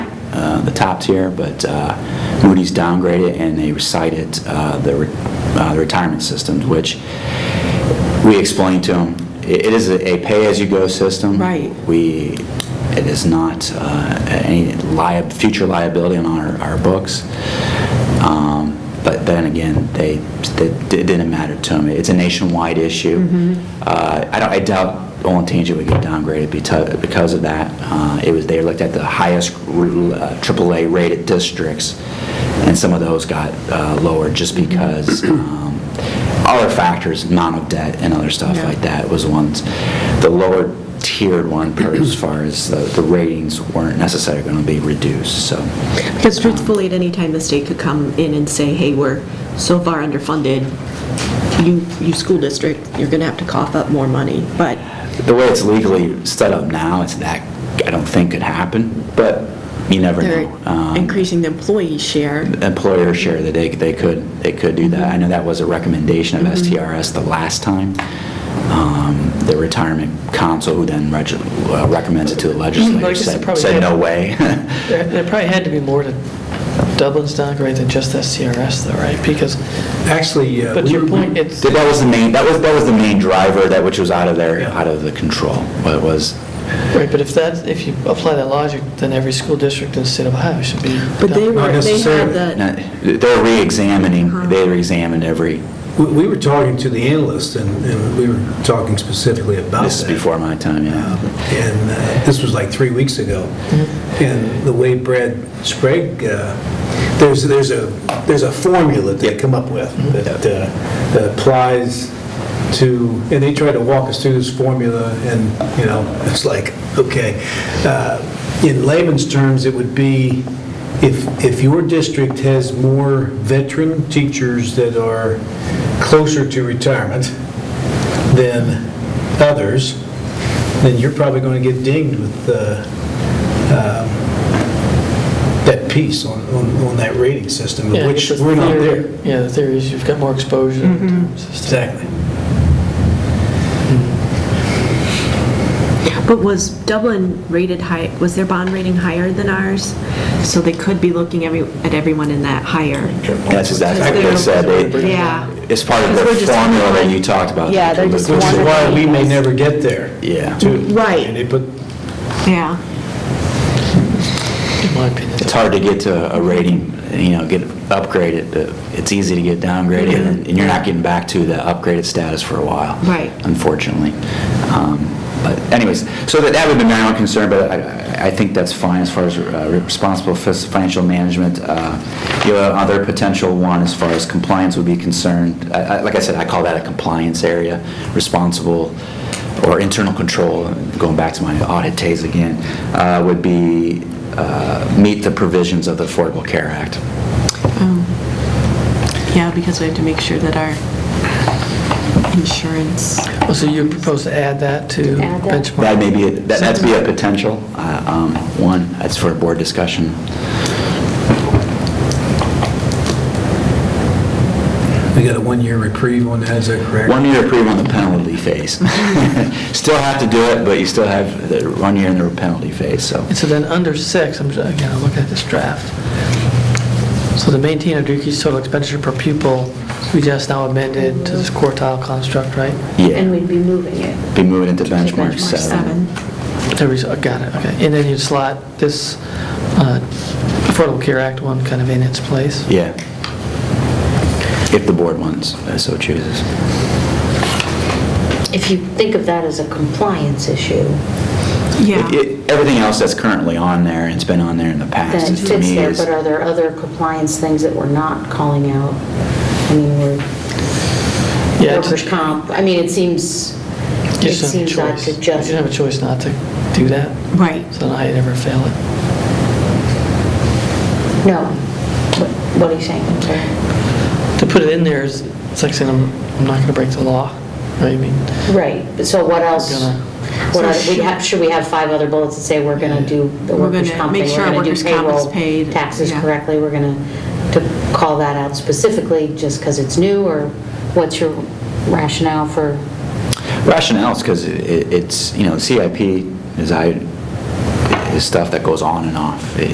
uh, the top tier, but uh, Moody's downgraded and they recited uh, the re- uh, the retirement systems, which we explained to them, it it is a a pay-as-you-go system. Right. We, it is not uh, any liab, future liability on our, our books. Um, But then again, they, they- it didn't matter to them. It's a nationwide issue. Uh, I don't, I doubt Olentangy would get downgraded beto- because of that. Uh, It was, they looked at the highest uh, AAA-rated districts, and some of those got uh, lowered just because um, other factors, amount of debt and other stuff Yeah. like that that was ones, the lower tiered one, per as far as the the ratings weren't necessarily going to be reduced, so. Because truthfully, at any time, the state could come in and say, hey, we're so far underfunded, you, you school district, you're going to have to cough up more money, but, The way it's legally set up now, it's that, I don't think could happen, but you never They're know. Um, increasing the employee share. employer share that they, they could, they could do that. I know that was a recommendation of STRS the last time. Um, The retirement council, who then reg- uh, recommends it to the legislature, Well, I guess it said, probably said did. no way. There there probably had to be more to Dublin's downgrade than just SCRS though, right? Because, Actually, uh, but to we your were- point, it's, That that was the main, that was, that was the main driver, that which was out of their, out of the control, what was, right, but if that, if you apply that logic, then every school district in the state of Ohio should be. But they down- were, they had necessarily. the, not- uh, they're re-examining, they re-examined every, we we were talking to the analyst, and and we were talking specifically about that. this is before my time, Um, yeah. And uh, this was like three weeks ago. And the way Brad Sprague, uh, there's, there's a, there's a formula that they come up with that uh, that applies to, and they try to walk us through this formula, and, you know, it's like, okay. Uh, In layman's terms, it would be, if, if your district has more veteran teachers that are closer to retirement than others, then you're probably going to get dinged with uh, um, that piece on, on on that rating system, Yeah, of I which guess the we're not theory- there. Yeah, the theory is you've got more exposure. Exactly. but was Dublin rated high, was their bond rating higher than ours? So they could be looking every, at everyone in that higher. That's exactly what they said, they, Yeah. it's part of the Because we're just formula that one- you talked about. Yeah, they're just Which is Wonderful. why we may never get there, Yeah, too. Right. And they put, Yeah. In my opinion. it's hard to get to a rating, you know, get upgraded, but it's easy to get downgraded, and and you're not getting back to the upgraded status for a while. Right. unfortunately. Um, But anyways, so that that would be my own concern, but I- I I think that's fine as far as uh, responsible fis- financial management. Uh, The other potential one, as far as compliance would be concerned, I- I- like I said, I call that a compliance area, responsible or internal control, going back to my audit days again, uh, would be uh, meet the provisions of the Affordable Care Act. Um, Yeah, because we have to make sure that our insurance, Oh, So you propose to add that to Add that. benchmark? That may be, a- that- that'd be a potential, uh, um, one, that's for a board discussion. we got a one-year reprieve on that, is that correct? One year reprieve on the penalty phase. Still have to do it, but you still have the one year in the penalty phase, so. And so then under six, I'm, just- again, I'm looking at this draft. So to maintain Oduki's total expenditure per pupil, we just now amended to this quartile construct, right? And Yeah, we'd be moving it. be moving into benchmark benchmark seven. seven. There we go, got it, okay. And then you slot this uh, Affordable Care Act one kind of in its place. Yeah. If the board wants, uh, so chooses. If you think of that as a compliance issue, It- Yeah, it- Everything else that's currently on there, and it's been on there in the past, that is to fits me there, is, but are there other compliance things that we're not calling out? I mean, we're, Yeah, it's- workers' comp, I mean, it seems, You it just don't have a seems odd choice. to You don't have just, a choice not to do that, right. so then I never fail it. no. What- What are you saying? I'm sorry. To put it in there is, it's like saying I'm, I'm not gonna break the law, right? I mean, Right, but so what else? Gonna- What So are, we should- have, should we have five other bullets that say we're gonna do the We're workers' gonna comp make thing, sure we're gonna workers' do comp is payroll, paid, taxes yeah. correctly, we're gonna, to call that out specifically just because it's new, or what's your rationale for? rationale is because it's, you know, CIP is, I, is stuff that goes on and off. It-